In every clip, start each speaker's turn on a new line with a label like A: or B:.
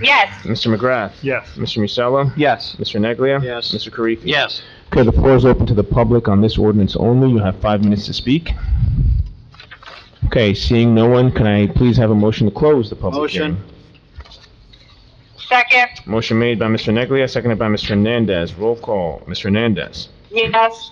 A: Yes.
B: Mr. McGrath.
C: Yes.
B: Mr. Musella.
D: Yes.
B: Mr. Neglia.
C: Yes.
B: Mr. Karifi.
D: Yes.
B: Okay, the floor is open to the public on this ordinance only. You have five minutes to speak. Okay, seeing no one, can I please have a motion to close the public
C: Motion.
B: hearing?
A: Second.
B: Motion made by Mr. Neglia, seconded by Mr. Hernandez. Roll call, Mr. Hernandez.
A: Yes.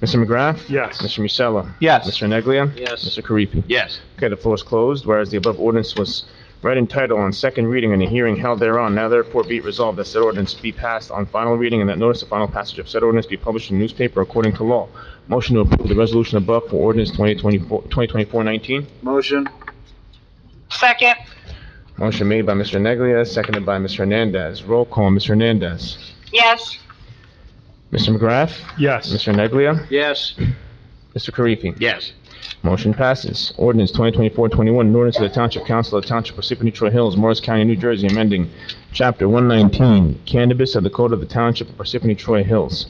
B: Mr. McGrath?
C: Yes.
B: Mr. Musella?
D: Yes.
B: Mr. Neglia?
C: Yes.
B: Mr. Karifi?
D: Yes.
B: Okay, the floor is closed, whereas the above ordinance was read in title on second reading and a hearing held thereon, now therefore be it resolved that said ordinance be passed on final reading and that notice of final passage of said ordinance be published in the newspaper according to law. Motion to approve the resolution above for ordinance 2024 2024-19.
C: Motion.
A: Second.
B: Motion made by Mr. Neglia, seconded by Mr. Hernandez. Roll call, Mr. Hernandez.
A: Yes.
B: Mr. McGrath?
C: Yes.
B: Mr. Neglia?
C: Yes.
B: Mr. Karifi?
D: Yes.
B: Motion passes. Ordinance 2024-21, an ordinance of the Township Council of the Township Parsippany Troy Hills, Morris County, New Jersey, amending Chapter 119, cannabis of the Code of the Township of Parsippany Troy Hills.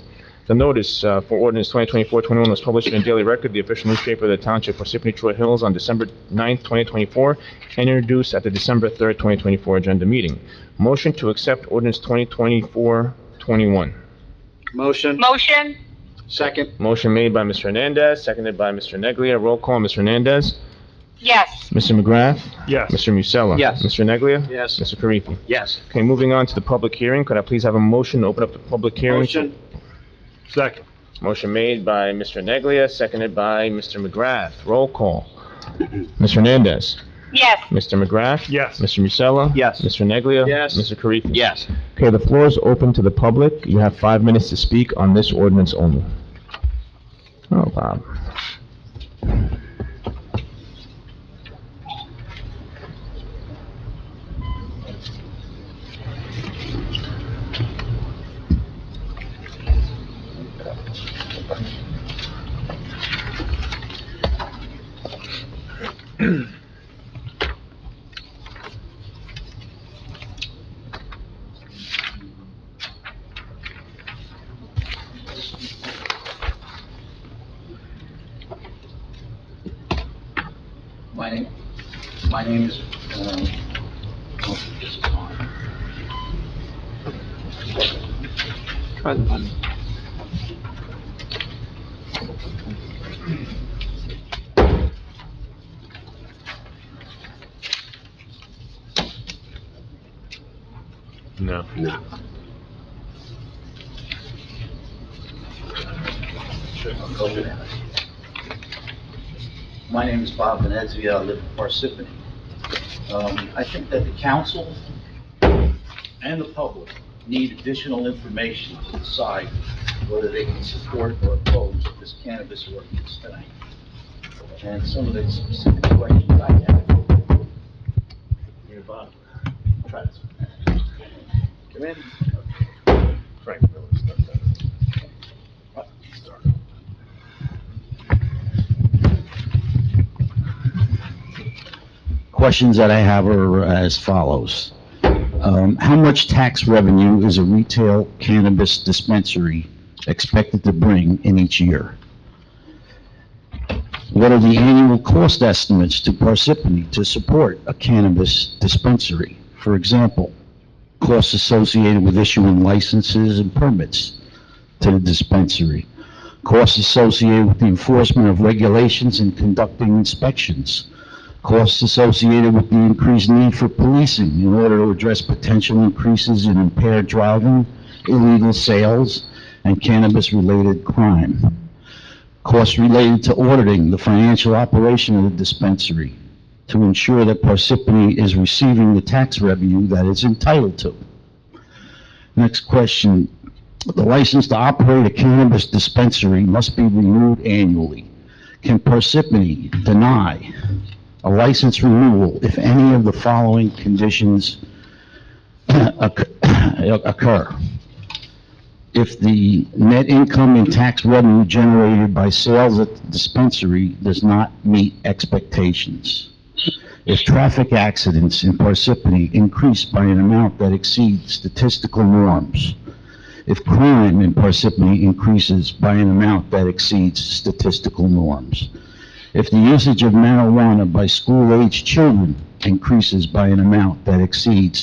B: The notice uh, for ordinance 2024-21 was published in the Daily Record, the official newspaper of the Township Parsippany Troy Hills, on December 9th, 2024, and introduced at the December 3rd, 2024 agenda meeting. Motion to accept ordinance 2024-21.
C: Motion.
A: Motion.
C: Second.
B: Motion made by Mr. Hernandez, seconded by Mr. Neglia. Roll call, Mr. Hernandez.
A: Yes.
B: Mr. McGrath.
C: Yes.
B: Mr. Musella?
D: Yes.
B: Mr. Neglia?
C: Yes.
B: Mr. Karifi?
D: Yes.
B: Okay, moving on to the public hearing, could I please have a motion to open up the public hearing?
C: Motion. Second.
B: Motion made by Mr. Neglia, seconded by Mr. McGrath. Roll call. Mr. Hernandez?
A: Yes.
B: Mr. McGrath?
C: Yes.
B: Mr. Musella?
D: Yes.
B: Mr. Neglia?
C: Yes.
B: Mr. Karifi?
D: Yes.
B: Okay, the floor is open to the public. You have five minutes to speak on this ordinance only. Oh, Bob.
E: My name, my name is, um, oh, this is on. Try the button.
B: No.
E: Go with it. My name is Bob Venezia, I live in Parsippany. Um, I think that the council and the public need additional information to decide whether they can support or oppose this cannabis ordinance tonight. And some of the specific questions I have. Here, Bob, try this. Come in.
B: Frank
E: questions that I have are as follows. Um, How much tax revenue is a retail cannabis dispensary expected to bring in each year? What are the annual cost estimates to Parsippany to support a cannabis dispensary? For example, costs associated with issuing licenses and permits to the dispensary, costs associated with the enforcement of regulations and conducting inspections, costs associated with the increased need for policing in order to address potential increases in impaired driving, illegal sales, and cannabis-related crime. Costs related to auditing the financial operation of the dispensary to ensure that Parsippany is receiving the tax revenue that it's entitled to. Next question. The license to operate a cannabis dispensary must be renewed annually. Can Parsippany deny a license renewal if any of the following conditions occur- occur. If the net income and tax revenue generated by sales at the dispensary does not meet expectations. If traffic accidents in Parsippany increase by an amount that exceeds statistical norms. If crime in Parsippany increases by an amount that exceeds statistical norms if the usage of marijuana by school-aged children increases by an amount that exceeds